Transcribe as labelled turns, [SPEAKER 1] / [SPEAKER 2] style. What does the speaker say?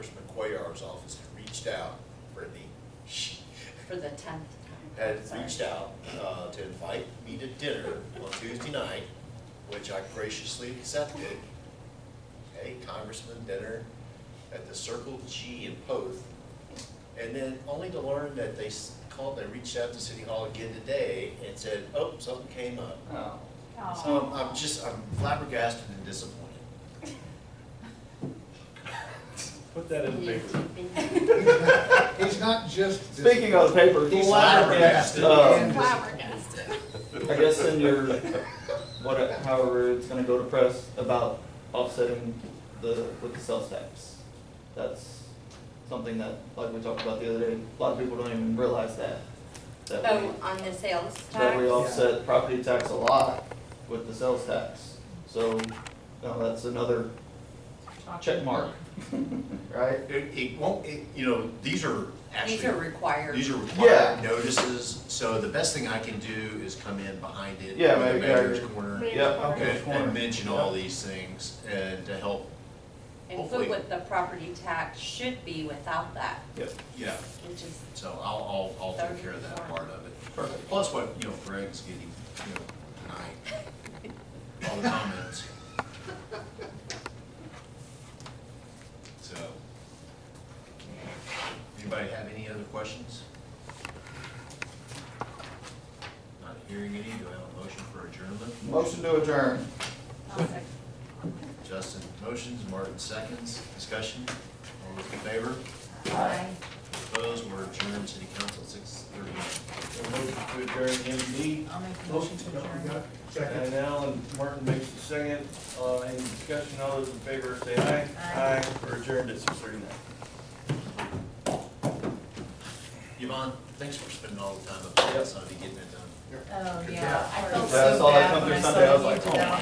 [SPEAKER 1] Congressman Cuellar's office had reached out, Brittany,
[SPEAKER 2] For the tenth time.
[SPEAKER 1] had
[SPEAKER 2] Sorry.
[SPEAKER 1] reached out uh, to invite me to dinner on Tuesday night, which I graciously accepted. Okay, Congressman dinner at the Circle G in Poth. And then only to learn that they s- called, they reached out to City Hall again today and said, oh, something came up.
[SPEAKER 3] Oh,
[SPEAKER 1] So I'm- I'm just, I'm flabbergasted and disappointed.
[SPEAKER 4] Put that in the paper.
[SPEAKER 2] paper.
[SPEAKER 5] He's not just.
[SPEAKER 3] speaking of the paper, he's
[SPEAKER 1] Flabbergasted.
[SPEAKER 3] um,
[SPEAKER 6] flabbergasted.
[SPEAKER 3] uh, I guess in your, what, however it's gonna go to press about offsetting the, with the sales tax. That's something that, like we talked about the other day, a lot of people don't even realize that. That we,
[SPEAKER 2] Oh, on the sales tax?
[SPEAKER 3] that we offset property tax a lot with the sales tax. So, no, that's another check mark, right?
[SPEAKER 1] It, it won't, it, you know, these are actually.
[SPEAKER 2] These are required.
[SPEAKER 1] These are
[SPEAKER 3] Yeah.
[SPEAKER 1] required notices, so the best thing I can do is come in behind it.
[SPEAKER 3] Yeah,
[SPEAKER 1] with the
[SPEAKER 3] maybe, yeah.
[SPEAKER 1] Mayor's Corner.
[SPEAKER 6] Maybe.
[SPEAKER 3] Yep.
[SPEAKER 1] And,
[SPEAKER 3] okay,
[SPEAKER 1] and mention all these things and to help,
[SPEAKER 2] And put what the property tax should be without that,
[SPEAKER 3] Yep,
[SPEAKER 1] yeah,
[SPEAKER 2] which is,
[SPEAKER 1] so I'll, I'll, I'll take care of that part of it.
[SPEAKER 3] Perfect.
[SPEAKER 1] Plus what, you know, Greg's getting, you know, tonight, all the comments. So. Anybody have any other questions? Not hearing any, do I have a motion for adjournment?
[SPEAKER 3] motion to adjourn.
[SPEAKER 1] Justin motions, Martin seconds, discussion, all those in favor?
[SPEAKER 2] I,
[SPEAKER 1] Opposed, we're adjourned, city council six thirty.
[SPEAKER 4] Motion to adjourn MD.
[SPEAKER 6] I'll make a motion to adjourn.
[SPEAKER 5] Second.
[SPEAKER 4] And Alan Martin makes the second. Uh, any discussion, all those in favor say aye.
[SPEAKER 6] Aye.
[SPEAKER 4] We're adjourned at six thirty-nine.
[SPEAKER 1] Yvonne, thanks for spending all the time up there,
[SPEAKER 3] Yep.
[SPEAKER 1] Sunday getting it done.
[SPEAKER 6] Oh, yeah, I felt
[SPEAKER 3] Yeah, I
[SPEAKER 6] so
[SPEAKER 3] saw that
[SPEAKER 6] bad
[SPEAKER 3] come
[SPEAKER 6] when I
[SPEAKER 3] through
[SPEAKER 6] saw
[SPEAKER 3] Sunday, I
[SPEAKER 6] that
[SPEAKER 3] was
[SPEAKER 6] you
[SPEAKER 3] like,
[SPEAKER 6] did
[SPEAKER 3] oh
[SPEAKER 6] that.
[SPEAKER 3] my